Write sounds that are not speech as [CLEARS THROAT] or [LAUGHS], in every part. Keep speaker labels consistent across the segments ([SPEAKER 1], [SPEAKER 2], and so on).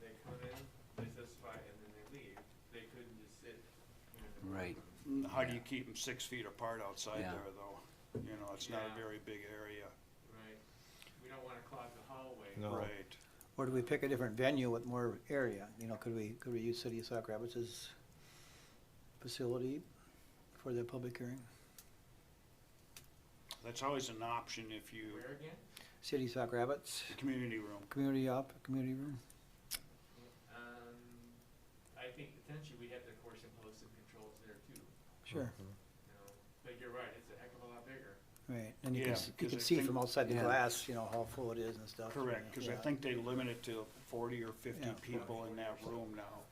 [SPEAKER 1] They come in, they testify, and then they leave. They couldn't just sit. in the courtroom.
[SPEAKER 2] Right.
[SPEAKER 3] How do you keep them six feet apart outside
[SPEAKER 2] Yeah.
[SPEAKER 3] there, though? You know, it's not
[SPEAKER 1] Yeah.
[SPEAKER 3] a very big area,
[SPEAKER 1] Right. We don't wanna clog the hallway.
[SPEAKER 4] No.
[SPEAKER 3] right?
[SPEAKER 5] Or do we pick a different venue with more area? You know, could we, could we use City of Sauk Rapids' facility for the public hearing?
[SPEAKER 3] That's always an option if you,
[SPEAKER 1] Where again?
[SPEAKER 5] City of Sauk Rapids,
[SPEAKER 3] the community room.
[SPEAKER 5] community op, community room?
[SPEAKER 1] Um, I think potentially we have the course and posted controls there too,
[SPEAKER 5] Sure,
[SPEAKER 1] you know, but you're right, it's a heck of a lot bigger.
[SPEAKER 5] right, and you
[SPEAKER 3] Mm-hmm. Yeah,
[SPEAKER 5] can, s- you
[SPEAKER 3] 'cause
[SPEAKER 5] can
[SPEAKER 3] I
[SPEAKER 5] see
[SPEAKER 3] think-
[SPEAKER 5] from outside the
[SPEAKER 2] Yeah.
[SPEAKER 5] glass, you know, how full it is and stuff.
[SPEAKER 3] Correct, because I
[SPEAKER 5] Yeah.
[SPEAKER 3] think they limit it to forty or fifty
[SPEAKER 5] Yeah.
[SPEAKER 3] people in that room now.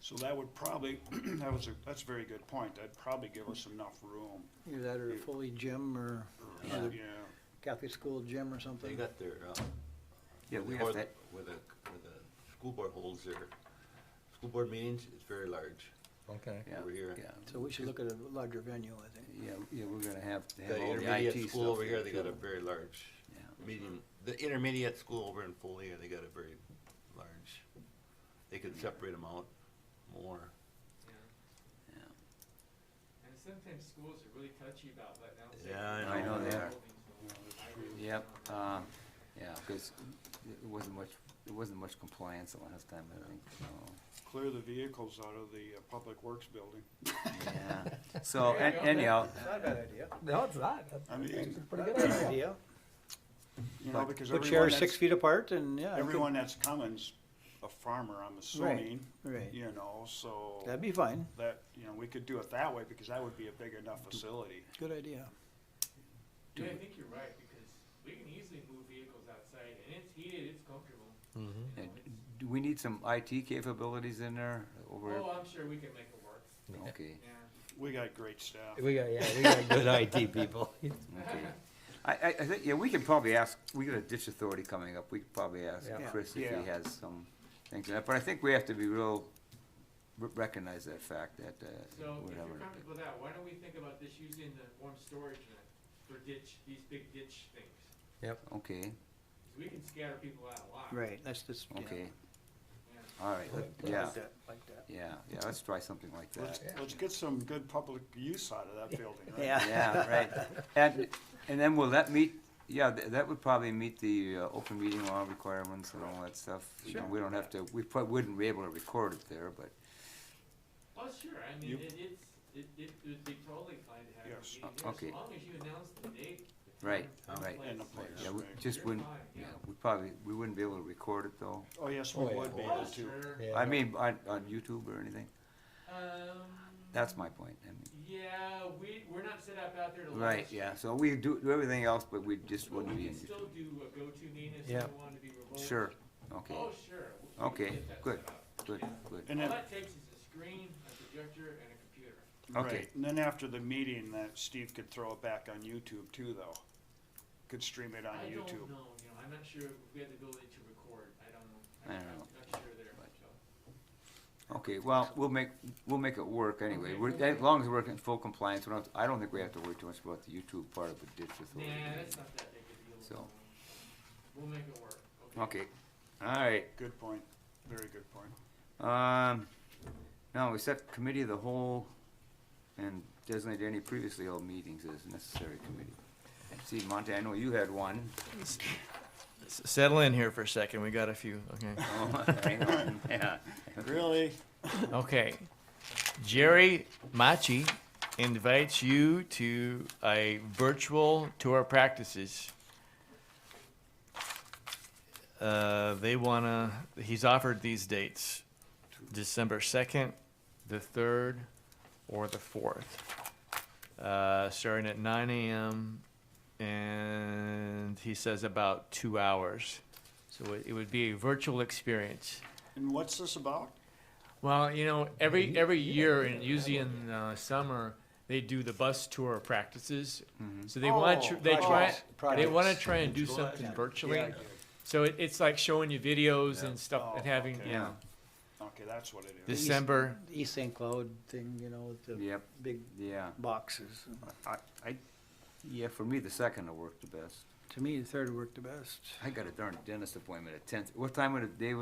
[SPEAKER 3] So that would probably, [CLEARS THROAT] that was a, that's a very good point. That'd probably give us enough room.
[SPEAKER 5] Either that or a fully gym or
[SPEAKER 3] Yeah,
[SPEAKER 5] Yeah. Catholic school gym or something.
[SPEAKER 6] They got their, uh.
[SPEAKER 2] Yeah,
[SPEAKER 6] where
[SPEAKER 2] we
[SPEAKER 6] the-
[SPEAKER 2] have
[SPEAKER 6] where the-
[SPEAKER 2] that-
[SPEAKER 6] Where the, where the school board holds their, school board meetings, it's very large.
[SPEAKER 4] Okay.
[SPEAKER 2] Yeah,
[SPEAKER 6] Over here.
[SPEAKER 2] yeah.
[SPEAKER 5] So we should look at a larger venue, I think.
[SPEAKER 2] Yeah, yeah, we're gonna have to have
[SPEAKER 6] The
[SPEAKER 2] all the IT
[SPEAKER 6] intermediate
[SPEAKER 2] stuff.
[SPEAKER 6] school over here, they
[SPEAKER 2] there,
[SPEAKER 6] got a
[SPEAKER 2] too.
[SPEAKER 6] very large
[SPEAKER 2] Yeah.
[SPEAKER 6] meeting, the intermediate school over in Foley, they got a very large, they could separate them out more.
[SPEAKER 1] Yeah.
[SPEAKER 2] Yeah.
[SPEAKER 1] And sometimes schools are really touchy about letting out.
[SPEAKER 6] Yeah, I
[SPEAKER 2] know. I know they are.
[SPEAKER 1] are.
[SPEAKER 2] Yep, um, yeah, because it wasn't much, it wasn't much compliance the last time, I think, so,
[SPEAKER 3] Clear the vehicles out of the uh, Public Works building.
[SPEAKER 2] yeah. So
[SPEAKER 1] There you
[SPEAKER 2] an-
[SPEAKER 1] go.
[SPEAKER 2] anyhow,
[SPEAKER 5] It's not a bad idea.
[SPEAKER 4] No, it's not. That's
[SPEAKER 3] I mean,
[SPEAKER 4] pretty good.
[SPEAKER 5] Good idea.
[SPEAKER 3] you know, because
[SPEAKER 5] Put
[SPEAKER 3] everyone
[SPEAKER 5] chairs
[SPEAKER 3] that's,
[SPEAKER 5] six feet apart and, yeah. I could-
[SPEAKER 3] everyone that's coming's a farmer, I'm assuming,
[SPEAKER 5] Right,
[SPEAKER 3] you know, so
[SPEAKER 5] that'd be fine,
[SPEAKER 3] that, you know, we could do it that way because that would be a big enough
[SPEAKER 4] Mm-hmm.
[SPEAKER 3] facility.
[SPEAKER 5] good idea.
[SPEAKER 1] Yeah, I think you're right, because we can easily move vehicles outside, and it's heated, it's comfortable, you
[SPEAKER 2] uh,
[SPEAKER 1] know, it's.
[SPEAKER 2] do we need some IT capabilities in there over?
[SPEAKER 1] Oh, I'm sure we can make it work,
[SPEAKER 2] Okay,
[SPEAKER 1] yeah.
[SPEAKER 3] We got great staff.
[SPEAKER 4] We got, yeah, we got good IT
[SPEAKER 2] [LAUGHS]
[SPEAKER 4] people.
[SPEAKER 2] okay. I, I, I think, yeah, we can probably ask, we got a ditch authority coming up, we could probably ask
[SPEAKER 4] Yeah.
[SPEAKER 2] Chris if
[SPEAKER 3] Yeah.
[SPEAKER 2] he has some things, but I think we have to be real, re- recognize that fact that, uh,
[SPEAKER 1] So if
[SPEAKER 2] whatever.
[SPEAKER 1] you're comfortable with that, why don't we think about just using the warm storage unit for ditch, these big ditch things?
[SPEAKER 2] Okay,
[SPEAKER 1] 'Cause we can scatter people out a lot.
[SPEAKER 5] Right, that's just, yeah. uh,
[SPEAKER 2] okay,
[SPEAKER 1] Yeah.
[SPEAKER 2] all right, let-
[SPEAKER 4] Like
[SPEAKER 2] yeah,
[SPEAKER 5] Like that, like that.
[SPEAKER 2] yeah, yeah, let's try something like
[SPEAKER 3] Let's,
[SPEAKER 2] that.
[SPEAKER 3] let's get some good public use out of that building, right?
[SPEAKER 5] Yeah.
[SPEAKER 2] Yeah, [LAUGHS] right. And, and then will that meet, yeah, th- that would probably meet the uh, open meeting law requirements and all that stuff. You know,
[SPEAKER 5] Sure.
[SPEAKER 2] We don't have to, we probably wouldn't be able to record it there, but,
[SPEAKER 1] Oh, sure, I
[SPEAKER 3] You-
[SPEAKER 1] mean, it, it's, it, it would be totally fine to have a
[SPEAKER 3] Yes.
[SPEAKER 1] meeting
[SPEAKER 2] Uh,
[SPEAKER 1] there,
[SPEAKER 2] okay.
[SPEAKER 1] as long as you announce the date. the
[SPEAKER 2] Right,
[SPEAKER 1] time, and
[SPEAKER 2] right.
[SPEAKER 3] And the place.
[SPEAKER 2] yeah, we
[SPEAKER 3] Right.
[SPEAKER 2] just
[SPEAKER 1] You're
[SPEAKER 2] wouldn't,
[SPEAKER 1] fine,
[SPEAKER 2] yeah,
[SPEAKER 1] yeah.
[SPEAKER 2] we probably, we wouldn't be able to record it though.
[SPEAKER 3] Oh, yes, we
[SPEAKER 4] Oh, yeah.
[SPEAKER 3] would be
[SPEAKER 1] Oh,
[SPEAKER 3] able to.
[SPEAKER 1] sure.
[SPEAKER 4] Yeah.
[SPEAKER 2] I mean, on, on YouTube or anything,
[SPEAKER 1] Um.
[SPEAKER 2] that's my point, I mean,
[SPEAKER 1] Yeah, we, we're not set up out there to. live
[SPEAKER 2] right, yeah, so we do, do everything else, but we just
[SPEAKER 1] But
[SPEAKER 2] wouldn't
[SPEAKER 1] we
[SPEAKER 2] be in
[SPEAKER 1] can still
[SPEAKER 2] YouTube.
[SPEAKER 1] do a go-to meeting if
[SPEAKER 4] Yeah.
[SPEAKER 1] someone wanted to be remote.
[SPEAKER 2] Sure, okay,
[SPEAKER 1] Oh, sure. we- we can
[SPEAKER 2] Okay,
[SPEAKER 1] get that
[SPEAKER 2] good.
[SPEAKER 1] set up.
[SPEAKER 2] good,
[SPEAKER 1] yeah.
[SPEAKER 2] good.
[SPEAKER 3] And
[SPEAKER 1] All
[SPEAKER 3] then,
[SPEAKER 1] that takes is a screen, a projector, and a computer.
[SPEAKER 2] Okay.
[SPEAKER 3] right, and then after the meeting, that Steve could throw it back on YouTube too, though. Could stream it on
[SPEAKER 1] I don't
[SPEAKER 3] YouTube.
[SPEAKER 1] know, you know, I'm not sure if we have the ability to record, I don't know.
[SPEAKER 2] I
[SPEAKER 1] I'm-
[SPEAKER 2] don't know.
[SPEAKER 1] I'm not sure there,
[SPEAKER 2] But-
[SPEAKER 1] so.
[SPEAKER 2] Okay, well, we'll make, we'll make it work anyway,
[SPEAKER 1] Okay.
[SPEAKER 2] we're, as long as we're in full compliance, we don't, I don't think we have to worry too much about the YouTube part of the ditch authority.
[SPEAKER 1] Nah, that's not that big a deal.
[SPEAKER 2] So-
[SPEAKER 1] We'll make it work, okay?
[SPEAKER 2] Okay, alright,
[SPEAKER 3] Good point, very good point.
[SPEAKER 2] um, now we set committee of the whole and designate any previously held meetings as necessary committee. And see, Monte, I know you had one. [LAUGHS]
[SPEAKER 7] S- Settle in here for a second. We got a few. Okay.
[SPEAKER 2] Oh, hang on, yeah.
[SPEAKER 3] Really?
[SPEAKER 7] Okay. Jerry Machi invites you to a virtual tour of practices. Uh, they wanna. He's offered these dates: December second, the third, or the fourth. Uh, starting at 9 a.m. and he says about two hours. So it, it would be a virtual experience.
[SPEAKER 3] And what's this about?
[SPEAKER 7] Well, you know, every every year, and usually in uh, summer, they do the bus tour practices. So they want
[SPEAKER 3] Oh,
[SPEAKER 7] to they try
[SPEAKER 3] projects.
[SPEAKER 7] they
[SPEAKER 5] Projects.
[SPEAKER 7] want to try and do something
[SPEAKER 5] Yeah.
[SPEAKER 7] virtually.
[SPEAKER 3] Yeah.
[SPEAKER 7] So it, it's like showing you videos and stuff
[SPEAKER 3] Oh,
[SPEAKER 7] and having
[SPEAKER 3] okay.
[SPEAKER 7] you know
[SPEAKER 3] Okay, that's what it is.
[SPEAKER 5] This-
[SPEAKER 7] December.
[SPEAKER 5] The East St. Cloud thing, you know, with the
[SPEAKER 2] Yep,
[SPEAKER 5] big
[SPEAKER 2] yeah,
[SPEAKER 5] boxes.
[SPEAKER 2] I, I, yeah, for me, the second will work the best.
[SPEAKER 5] To me, the third worked the best.
[SPEAKER 2] I got a darn dentist appointment at ten, what time of the day